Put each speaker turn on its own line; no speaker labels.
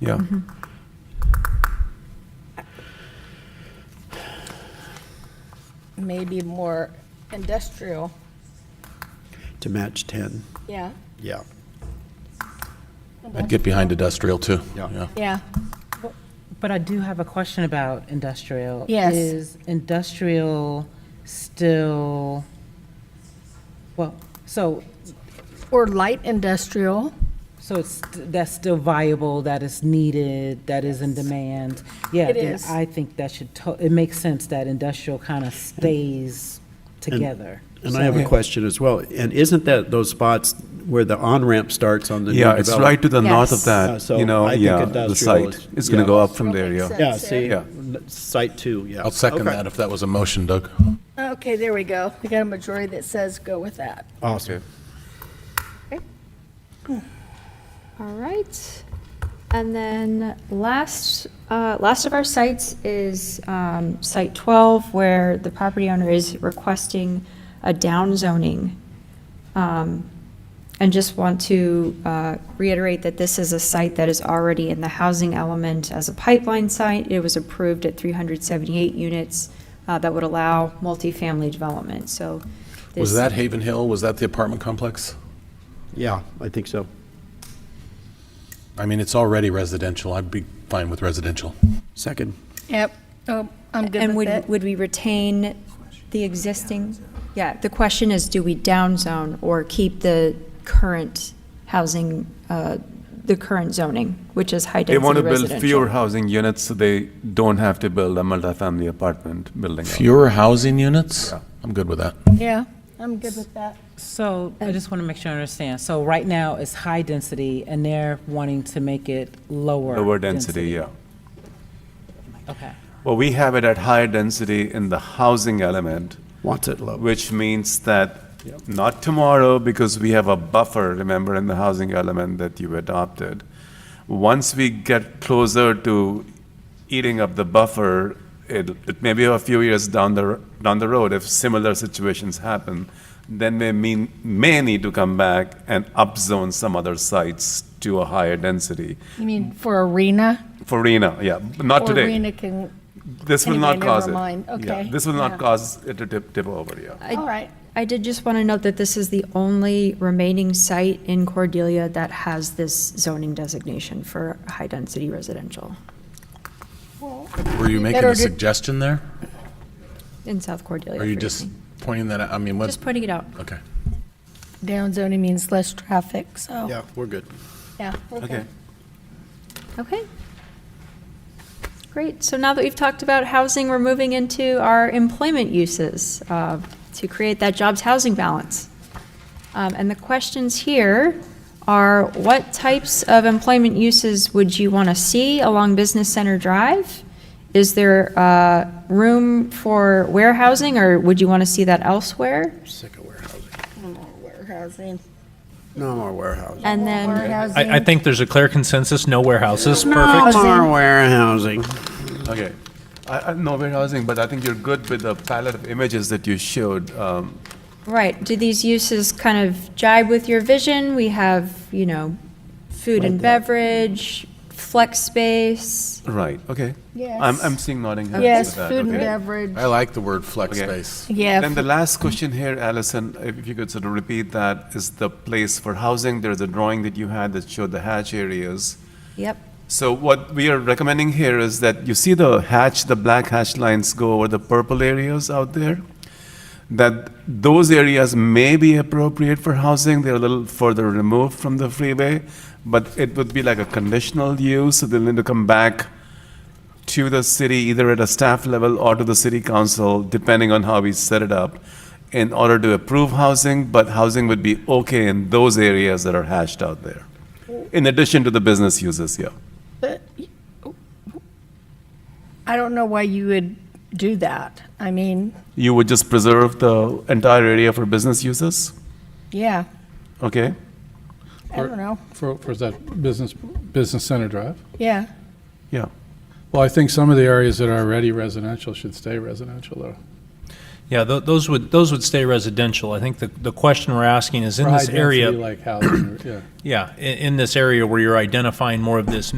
Yeah.
maybe more industrial.
to match 10.
Yeah.
Yeah.
I'd get behind industrial, too.
Yeah.
Yeah.
But I do have a question about industrial.
Yes.
Is industrial still, well, so,
Or light industrial.
so it's, that's still viable, that is needed, that is in demand? Yeah,
It
then
is.
I think that should, to- it makes sense that industrial kind of stays together.
And I have a question as well. And isn't that those spots where the on-ramp starts on the new
Yeah,
development?
it's right to the north of
Yes.
Uh,
that,
so
you know,
I think
yeah, the
industrial
site.
is-
It's going to
yeah.
go up from there,
Makes
yeah.
sense.
Yeah, see,
Yeah.
n- site two, yeah.
I'll second
Okay.
that if that was a motion, Doug.
Okay, there we go. We got a majority that says go with that.
Awesome.
All right. And then last, uh, last of our sites is um, Site 12, where the property owner is requesting a downzoning. Um, And just want to uh, reiterate that this is a site that is already in the housing element as a pipeline site. It was approved at 378 units uh, that would allow multifamily development, so.
Was
this-
that Haven Hill? Was that the apartment complex?
Yeah, I think so.
I mean, it's already residential. I'd be fine with residential.
Second.
Yep. Oh, I'm good
And
with
would,
that.
would we retain the existing? Yeah, the question is, do we downzone or keep the current housing, uh, the current zoning, which is
They want
high-density
to build fewer
residential?
housing units, so they don't have to build a multifamily apartment building. out.
Fewer housing units? I'm good with that.
Yeah, I'm good with that.
So I just want to make sure I understand. So right now it's high density and they're wanting to make it lower.
Lower density, yeah.
Okay.
Well, we have it at higher density in the housing element,
Wants it low.
which means that not tomorrow, because we have a buffer, remember, in the housing element that you adopted. Once we get closer to eating up the buffer, it, it may be a few years down the, r- down the road, if similar situations happen, then we mean, may need to come back and upzone some other sites to a higher density.
You mean
Mm.
for arena?
For RENA, yeah, not
Or
today.
Arena can,
This will
Anyway,
not cause
never
it.
mind.
Yeah,
Okay.
This will
Yeah.
not cause it to tip, tip over, yeah.
I-
all right.
I did just want to note that this is the only remaining site in Cordelia that has this zoning designation for high-density residential
Were you making
better
a
to-
suggestion there?
in South Cordelia.
Are you
for
just
evening.
pointing that out? I mean, what?
Just putting it out.
Okay.
Downzoning means less traffic, so,
Yeah, we're good.
yeah. we're good.
Okay.
Okay. Great. So now that we've talked about housing, we're moving into our employment uses uh, to create that jobs housing balance. Um, And the questions here are what types of employment uses would you want to see along Business Center Drive? Is there uh, room for warehousing or would you want to see that elsewhere?
Sick of warehousing.
Warehousing.
No more warehousing.
And then,
Warehousing.
I, I think there's a clear consensus, no warehouses,
No
perfect.
more warehousing.
Okay. I, I know warehousing, but I think you're good with the palette of images that you showed. Um,
right, do these uses kind of jibe with your vision? We have, you know, food and beverage, flex space.
right, okay. I'm,
Yes.
I'm seeing nodding heads
Yes,
with that,
food and
okay.
beverage.
I like the word flex
Okay.
space.
Yeah.
Then the last question here, Allison, if you could sort of repeat that, is the place for housing. There's a drawing that you had that showed the hatch areas.
Yep.
So what we are recommending here is that you see the hatch, the black hatch lines go over the purple areas out there? That those areas may be appropriate for housing, they're a little further removed from the freeway, but it would be like a conditional use, so they'll need to come back to the city, either at a staff level or to the city council, depending on how we set it up, in order to approve housing, but housing would be okay in those areas that are hashed out there. In addition to the business uses, yeah.
But I don't know why you would do that. I mean,
You would just preserve the entire area for business uses?
yeah,
Okay,
I don't know,
For, for that business, business center drive?
yeah.
yeah.
Well, I think some of the areas that are already residential should stay residential, though.
Yeah, tho- those would, those would stay residential. I think the, the question we're asking is in
For
this
high-density,
area,
Like housing, yeah.
yeah, in, in this area where you're identifying more of this